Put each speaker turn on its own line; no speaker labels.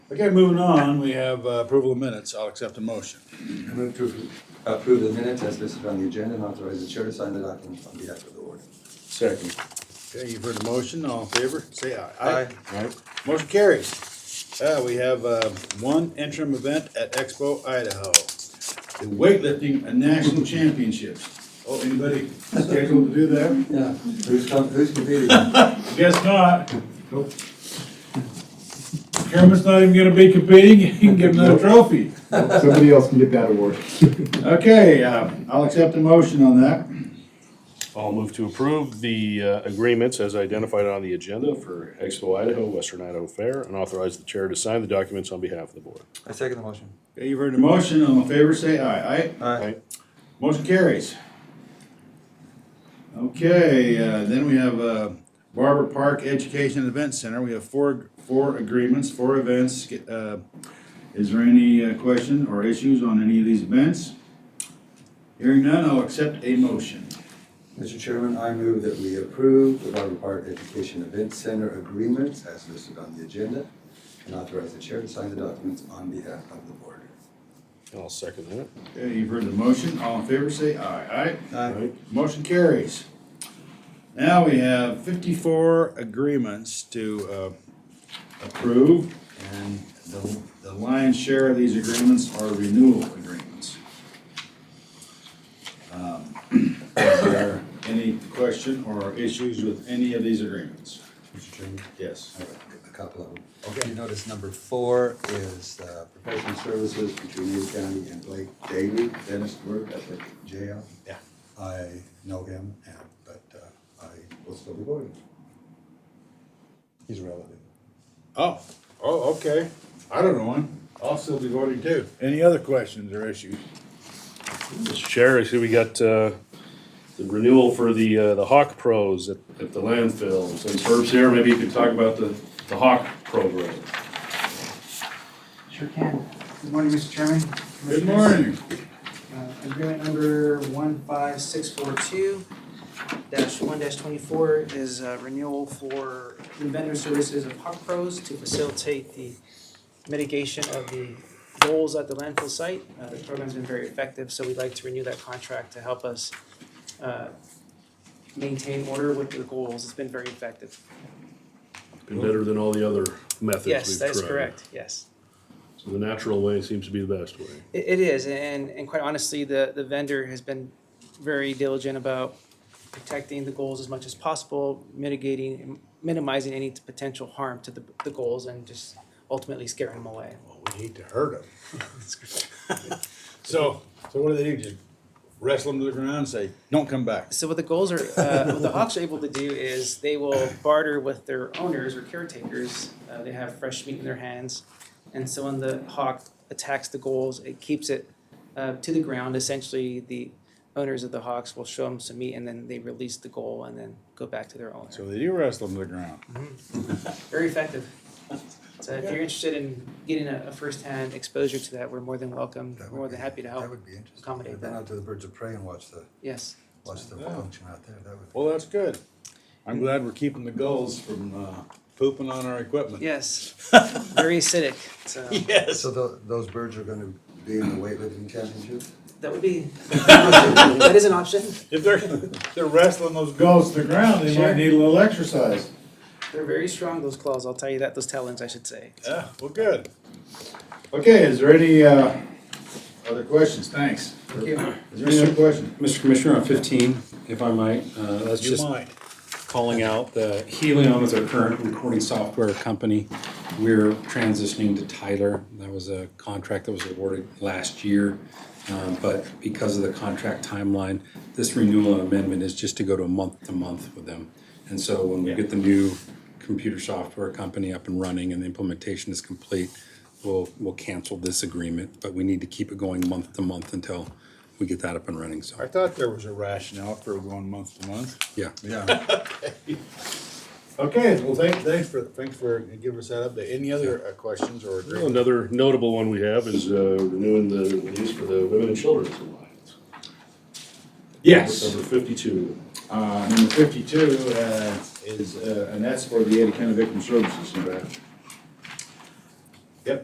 Okay, moving on, we have uh, approval of minutes. I'll accept a motion.
I move to approve the minutes as listed on the agenda and authorize the chair to sign the document on behalf of the board.
Second.
Okay, you've heard the motion. All in favor, say aye.
Right?
Motion carries. Uh, we have, uh, one interim event at Expo Idaho. The weightlifting and national championships. Oh, anybody scheduled to do that?
Yeah, who's com- who's competing?
Guess not. Kermit's not even gonna be competing. You can give him that trophy.
Somebody else can get that award.
Okay, uh, I'll accept a motion on that.
I'll move to approve the uh, agreements as identified on the agenda for Expo Idaho, Western Idaho Fair, and authorize the chair to sign the documents on behalf of the board.
I second the motion.
Okay, you've heard the motion. All in favor, say aye. Aye?
Aye.
Right?
Motion carries. Okay, uh, then we have uh, Barber Park Education and Event Center. We have four, four agreements, four events. Uh, Is there any uh, question or issues on any of these events? Hearing none, I'll accept a motion.
Mr. Chairman, I move that we approve the Barber Park Education Event Center agreements as listed on the agenda and authorize the chair to sign the documents on behalf of the board.
And I'll second that.
Okay, you've heard the motion. All in favor, say aye. Aye?
Right?
Motion carries. Now we have fifty-four agreements to uh, approve, and the the lion's share of these agreements are renewal agreements. Um, Is there any question or issues with any of these agreements?
Mr. Chairman?
Yes.
All right, A couple of them. Okay, you notice number four is uh, professional services between Lee County and Blake Davy, Dennis work at the jail.
Yeah.
I know him, and, but uh, I will still be voting. He's a relative.
Oh, oh, okay. I don't know him. I'll still be voting too. Any other questions or issues?
Mr. Chair, I see we got uh, the renewal for the, uh, the Hawk Pros at, at the landfill. Since Herb's here, maybe you could talk about the, the Hawk program.
Sure can. Good morning, Mr. Chairman.
Good morning.
Uh, Agreement number one five six four two dash one dash twenty-four is uh, renewal for vendor services of Hawk Pros to facilitate the mitigation of the goals at the landfill site. Uh, The program's been very effective, so we'd like to renew that contract to help us uh, maintain order with the goals. It's been very effective.
Been better than all the other methods we've tried.
Yes, that is correct, yes.
So the natural way seems to be the best way.
It, it is, and, and quite honestly, the, the vendor has been very diligent about protecting the goals as much as possible, mitigating, minimizing any potential harm to the, the goals and just ultimately scaring them away.
Well, we hate to hurt them. So, so what do they do? Just wrestle them to the ground and say, "Don't come back."
So what the goals are, uh, what the Hawks are able to do is they will barter with their owners or caretakers. Uh, they have fresh meat in their hands, and so when the hawk attacks the goals, it keeps it uh, to the ground. Essentially, the owners of the hawks will show them some meat, and then they release the goal, and then go back to their owner.
So they do wrestle them to the ground.
Very effective. So if you're interested in getting a, a firsthand exposure to that, we're more than welcome.
That would
more than
be-
happy to
That
help.
would be interesting.
accommodate
I've been
that.
out to the Birds of Prey and watched the,
Yes.
watched the
Yeah.
function out there, that would.
Well, that's good. I'm glad we're keeping the gulls from uh, pooping on our equipment.
Yes. Very acidic. So
Yes.
So tho- those birds are gonna be in the weightlifting championship?
that would be that is an option.
If they're if they're wrestling those gulls to the ground, they
Sure.
might need a little exercise.
They're very strong, those claws, I'll tell you that, those talons, I should say.
Yeah. Well, good. Okay. Is there any uh, other questions? Thanks.
Thank you.
Is there any other question?
Mr. Commissioner, on 15, if I might, uh, that's
You
just
might.
calling out that Helion is our current recording software company. We're transitioning to Tyler. That was a contract that was awarded last year. Um, But because of the contract timeline, this renewal and amendment is just to go to month to month with them. And so when we get the new computer software company up and running and the implementation is complete, we'll, we'll cancel this agreement. But we need to keep it going month to month until we get that up and running, so.
I thought there was a rationale for going month to month.
Yeah.
Yeah.
Okay, well, thank, thanks for, thanks for giving us that update. Any other uh, questions or
Well,
agreements?
Another notable one we have is uh, renewing the lease for the Women and Children's Alliance. Number fifty-two.
Uh, number fifty-two, uh, is, uh, and that's for the Ada County Victim Services, in fact.